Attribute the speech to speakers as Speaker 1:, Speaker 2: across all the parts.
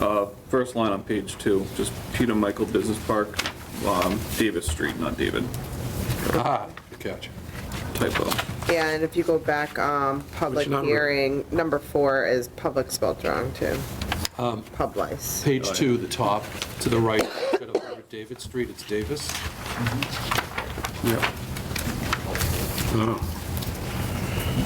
Speaker 1: Uh, First line on page two, just Peter Michael Business Park, um, Davis Street, not David,
Speaker 2: Ah, gotcha.
Speaker 1: typo.
Speaker 3: And if you go back, um, public
Speaker 2: number?
Speaker 3: hearing, number four is public spelled wrong too. Publice.
Speaker 2: Page two, the top, to the right, instead of Hundred David Street, it's Davis.
Speaker 4: Yeah. Oh,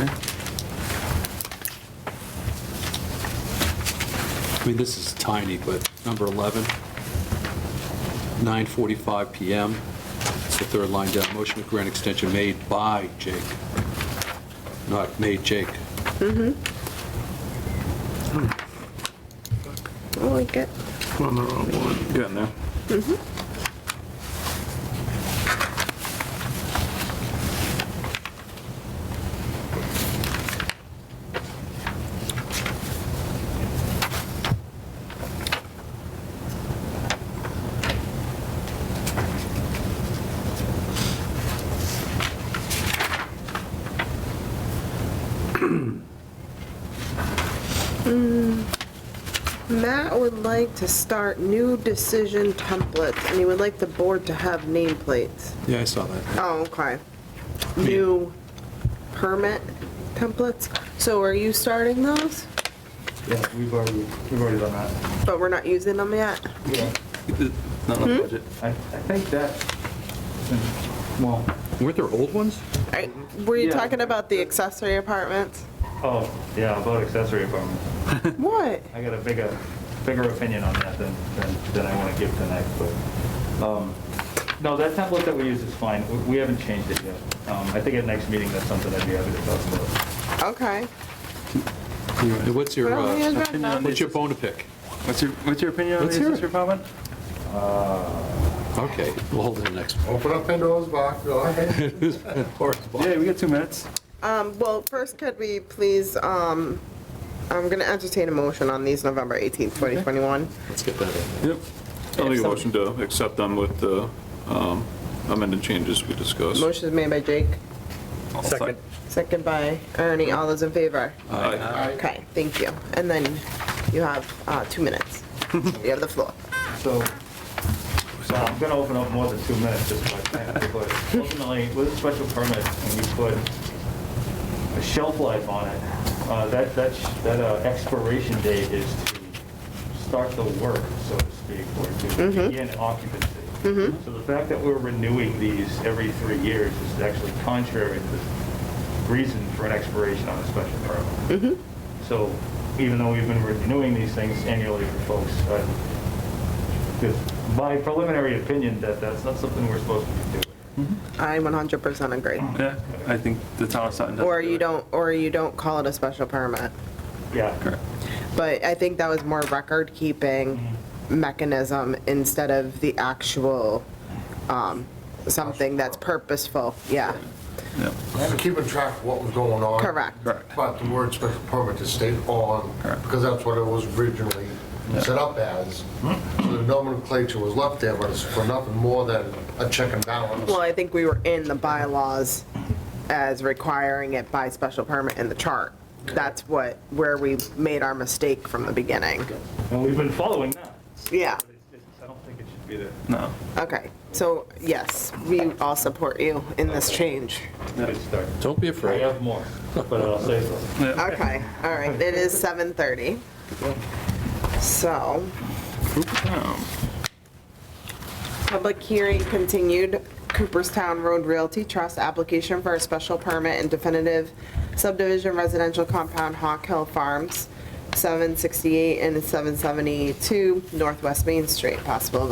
Speaker 1: Okay.
Speaker 2: I mean, this is tiny, but number 11, 9:45 PM, it's the third line down, motion to grant extension made by Jake, not made Jake.
Speaker 3: I like it.
Speaker 4: on the wrong one.
Speaker 1: You in there?
Speaker 3: Matt would like to start new decision templates and he would like the board to have nameplates.
Speaker 2: Yeah, I saw that.
Speaker 3: Oh, okay. New permit templates. So are you starting those?
Speaker 5: Yeah, we've already, we've already done that.
Speaker 3: But we're not using them yet?
Speaker 5: Yeah.
Speaker 1: Not on budget.
Speaker 5: I, I think that, well,
Speaker 2: Weren't there old ones?
Speaker 3: I- Were you
Speaker 5: Yeah.
Speaker 3: talking about the accessory apartments?
Speaker 5: oh, yeah, about accessory apartments.
Speaker 3: What?
Speaker 5: I got a bigger, bigger opinion on that than, than, than I want to give tonight, but, um, no, that template that we use is fine. We- We haven't changed it yet. Um, I think at next meeting, that's something I'd be happy to talk about.
Speaker 3: Okay.
Speaker 2: And What's your,
Speaker 3: Well, yeah,
Speaker 2: uh,
Speaker 3: that's not-
Speaker 2: what's your bone to pick?
Speaker 4: What's your, what's your opinion
Speaker 2: Let's hear it.
Speaker 4: comment?
Speaker 5: Uh,
Speaker 2: Okay, we'll hold it the next one.
Speaker 6: Open up Pandora's box, go ahead.
Speaker 4: Yeah, we got two minutes.
Speaker 3: Um, well, first, could we please, um, I'm gonna entertain a motion on these November 18th, 2021.
Speaker 2: Let's get that in.
Speaker 1: Yep. I'll make a motion to accept them with the um, amended changes we discussed.
Speaker 3: Motion is made by Jake,
Speaker 1: Second.
Speaker 3: second by Ernie. All those in favor? Okay, thank you. And then you have, uh, two minutes. You have the floor.
Speaker 5: So, so I'm gonna open up more than two minutes just by saying, but ultimately, with a special permit, when you put a shelf life on it, uh, that, that, sh- that uh, expiration date is to start the work, so to speak, or to begin occupancy. So the fact that we're renewing these every three years is actually contrary to the reason for an expiration on a special permit. So even though we've been renewing these things annually for folks, uh, it's my preliminary opinion that that's not something we're supposed to be doing.
Speaker 3: I 100% agree.
Speaker 4: Yeah, I think the town of Sutton. does
Speaker 3: Or
Speaker 4: do
Speaker 3: you
Speaker 4: it.
Speaker 3: don't, or you don't call it a special permit.
Speaker 5: Yeah.
Speaker 3: But I think that was more record-keeping mechanism instead of the actual, um, something that's purposeful, yeah.
Speaker 1: Yep.
Speaker 6: So Keeping track of what was going on.
Speaker 3: Correct.
Speaker 1: Correct.
Speaker 6: But the word special permit to stay on,
Speaker 1: Correct.
Speaker 6: because that's what it was originally set up as. So the nomenclature was left there, but it's for nothing more than a check and balance.
Speaker 3: Well, I think we were in the bylaws as requiring it by special permit in the chart. That's what, where we made our mistake from the beginning.
Speaker 5: And we've been following that.
Speaker 3: Yeah,
Speaker 5: But it's just, I don't think it should be there.
Speaker 4: No.
Speaker 3: okay. So, yes, we all support you in this change.
Speaker 5: Good start.
Speaker 2: Don't be
Speaker 5: I
Speaker 2: afraid.
Speaker 5: have more, but I'll save them.
Speaker 3: Okay, all right, it is 7:30. So,
Speaker 1: Cooperstown.
Speaker 3: public hearing continued, Cooperstown Road Realty Trust application for a special permit and definitive subdivision residential compound Hawk Hill Farms, 768 and 772 Northwest Main Street, possible